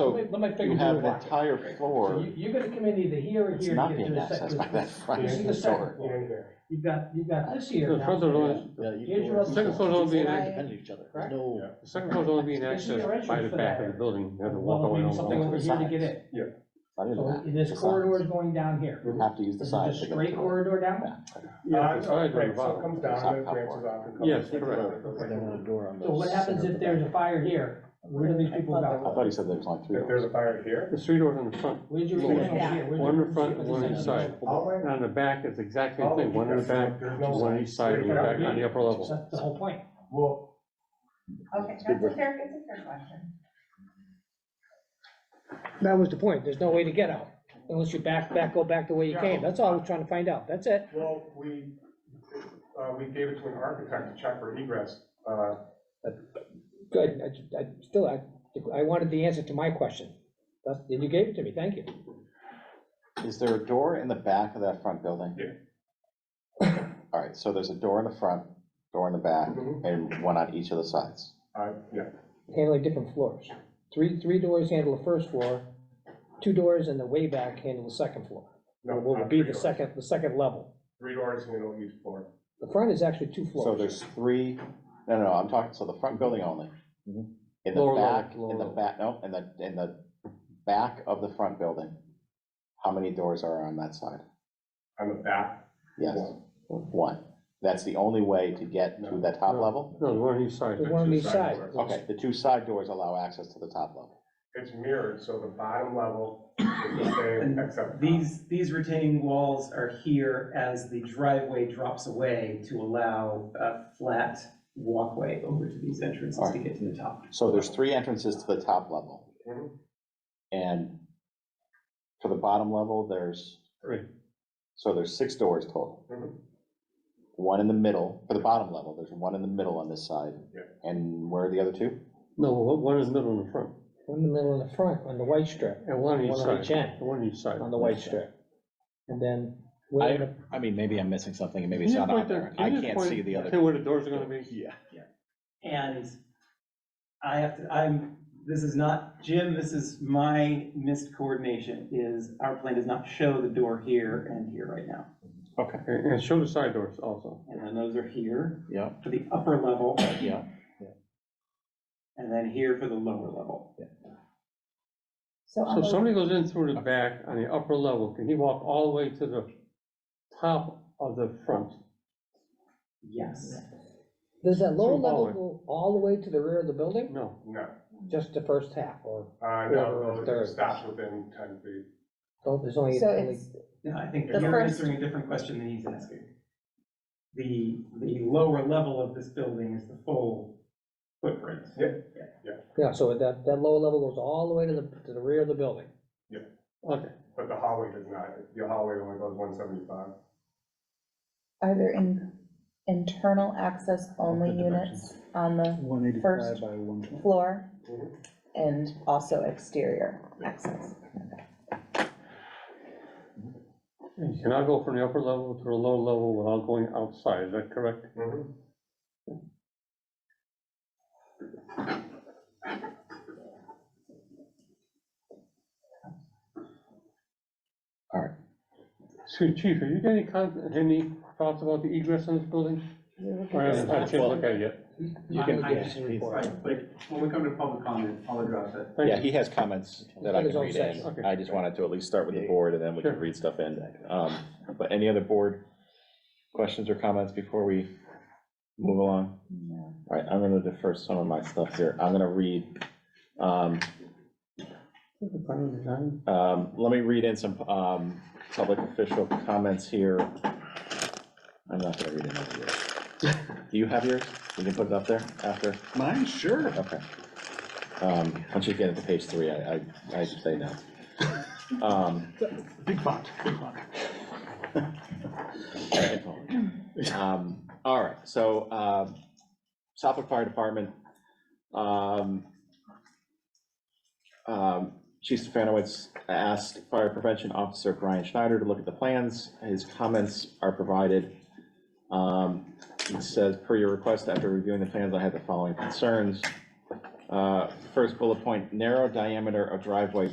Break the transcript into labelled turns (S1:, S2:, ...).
S1: So
S2: let me- let me figure
S1: you have
S2: it
S1: an
S2: out.
S1: entire
S2: So
S1: floor.
S2: you, you're gonna come in either here or
S1: It's
S2: here. to
S1: not
S2: get to
S1: being
S2: the
S1: accessed
S2: second-
S1: by that front
S2: This is the
S1: door.
S2: second floor. You've got, you've got this here
S3: The
S2: now.
S3: front door is,
S4: Yeah, you
S2: Here's
S4: go
S2: your
S4: in.
S2: other-
S3: Second floor don't be an
S4: They're
S3: act-
S4: Independent of each other,
S2: Correct?
S4: there's no,
S3: the second floor's only being
S2: This is your
S3: accessed by
S2: entrance
S3: the
S2: for
S3: back
S2: that
S3: of the
S2: area.
S3: building, you have to walk
S2: Well,
S3: away
S2: maybe
S3: on
S2: something
S3: the
S2: over
S1: the
S2: here to
S1: sides.
S2: get in.
S1: Not even
S2: So
S1: that.
S2: this
S1: the
S2: corridor is
S1: sides.
S2: going down here.
S1: You have to use the
S2: Is it a
S1: sides. to get
S2: straight
S1: through.
S2: corridor down?
S3: Yeah, it's
S5: Uh,
S3: higher than
S5: Right,
S3: the
S5: so it
S3: bottom.
S5: comes down and
S1: It's not
S5: it branches
S1: popcorn.
S5: off and comes.
S3: Yes,
S5: It's
S3: correct.
S4: but
S5: like-
S4: they're on a door on the.
S2: So what happens
S4: center
S2: if there's a
S4: back.
S2: fire here? Where do these people
S1: I
S2: go?
S1: thought he said there was only three
S5: If there's
S1: doors.
S5: a fire here,
S3: The three doors in the front,
S2: Where's your
S3: Yeah.
S2: original here? Where's
S3: One
S2: your-
S3: in front,
S2: where's
S3: one
S2: the
S3: on each
S2: second
S3: side.
S5: hallway?
S3: and on the back, it's the exact
S5: oh,
S3: same thing, one in the back,
S5: There's no
S3: one on each side, and one back on the upper
S2: one?
S3: level.
S2: That's the whole point.
S5: Well,
S6: Okay,
S4: It's
S6: that's
S4: a good
S6: a fair, it's a fair question.
S7: That was the point, there's no way to get out, unless you back, back, go back the way you came, that's all I was trying to find out, that's it.
S5: well, we, uh, we gave it to an architect to check for egress, uh,
S7: Good, I, I, still, I, I wanted the answer to my question, that's, and you gave it to me, thank you.
S1: Is there a door in the back of that front building?
S5: Yeah.
S1: All right, so there's a door in the front, door in the back,
S5: Mhm.
S1: and one on each of the sides.
S5: uh, yeah.
S7: Handling different floors, three, three doors handle the first floor, two doors in the way back handle the second floor,
S5: no,
S7: what
S5: uh,
S7: would be
S5: three
S7: the
S5: doors.
S7: second, the second level.
S5: Three doors and it'll use floor.
S7: The front is actually two
S1: So
S7: floors,
S1: there's three, no, no, no, I'm talking, so the front building only.
S3: Mm-hmm.
S4: Mhm.
S1: In the
S3: Lower level,
S1: back, in
S3: lower
S1: the
S3: level.
S1: back, no, in the, in the back of the front building, how many doors are on that side?
S5: On the back,
S1: Yes,
S5: One.
S1: one. That's the only way to get to the top
S3: No.
S1: level?
S3: No, the one on each side.
S7: there's one on each side.
S1: Okay, the two side doors allow access to the top level.
S5: it's mirrored, so the bottom level is the same except.
S8: uh, These, these retaining walls are here as the driveway drops away to allow a flat walkway over to these entrances to get to the top.
S1: So there's three entrances to the top level.
S5: Mhm.
S1: And for the bottom level, there's,
S3: Three.
S1: so there's six doors total.
S5: Mhm.
S1: One in the middle, for the bottom level, there's one in the middle on this side.
S5: Yeah.
S1: And where are the other two?
S3: No, one one is middle in the front,
S7: one in the middle and the front, on the white strip,
S3: and one on each
S7: one on each
S3: side,
S7: end,
S3: and one on each side.
S7: on the white strip. And then, where the
S4: I mean, maybe I'm missing something and maybe
S3: Can
S4: it's
S3: you
S4: not
S3: point
S4: on there.
S3: can
S4: I
S3: you just
S4: can't
S3: point-
S4: see the
S3: Tell
S4: other.
S3: me where the doors are gonna be?
S4: Yeah.
S8: And I have to, I'm, this is not, Jim, this is my missed coordination, is our plan does not show the door here and here right now.
S3: And and show the side doors also.
S8: And then those are here
S4: Yeah,
S8: for the upper level,
S4: yeah.
S8: and then here for the lower level.
S3: So if somebody goes in through the back on the upper level, can he walk all the way to the top of the front?
S8: Yes.
S7: Does that lower
S3: Through all
S7: level
S3: the-
S7: go all the way to the rear of the building?
S3: No.
S5: No,
S7: Just the first half, or,
S5: uh,
S7: Whoever
S5: no,
S7: third.
S5: it stops within ten feet.
S7: oh, there's only,
S6: So
S7: only-
S6: it's,
S8: No, I think
S6: The
S8: you're
S6: first-
S8: answering a different question than he's asking. The, the lower level of this building is the full footprint.
S7: yeah, so that, that lower level goes all the way to the, to the rear of the building.
S3: Okay,
S5: But the hallway does not, the hallway only goes one seventy-five.
S6: are there in, internal access only
S4: What the
S6: units on the
S4: One
S6: First.
S4: by one twenty.
S6: floor
S5: Mhm.
S6: and also exterior access?
S3: and you cannot go from the upper level to the lower level without going outside, is that correct?
S5: Mhm.
S3: Chief, Chief, have you got any con, any thoughts about the egress in this building? Or I haven't had a chance to look at it yet.
S4: You can,
S8: I- I just
S4: yeah,
S8: Right, but when we come to public comment, I'll address it.
S3: Thank
S9: Yeah,
S3: you.
S9: he has comments that I
S7: His
S9: can
S7: own
S9: read in.
S7: section.
S3: Okay.
S9: I just wanted to at least start with the board, and then we can
S3: Sure.
S9: read stuff in. Um, But any other board questions or comments before we move along? All right, I'm gonna defer some of my stuff here. I'm gonna read, um, um, let me read in some um, public official comments here. I'm not gonna read any of yours. Do you have yours? We can put it up there after?
S4: Mine, sure.
S9: Okay. Um, Once you get into page three, I, I, I should say no. Um,
S4: Big font, big font.
S9: um, All right, so um, Suffolk Fire Department. um, um, Chief Stefanowitz asked Fire Prevention Officer Brian Schneider to look at the plans. His comments are provided. Um, It says, per your request, after reviewing the plans, I had the following concerns. Uh, First bullet point, narrow diameter of driveway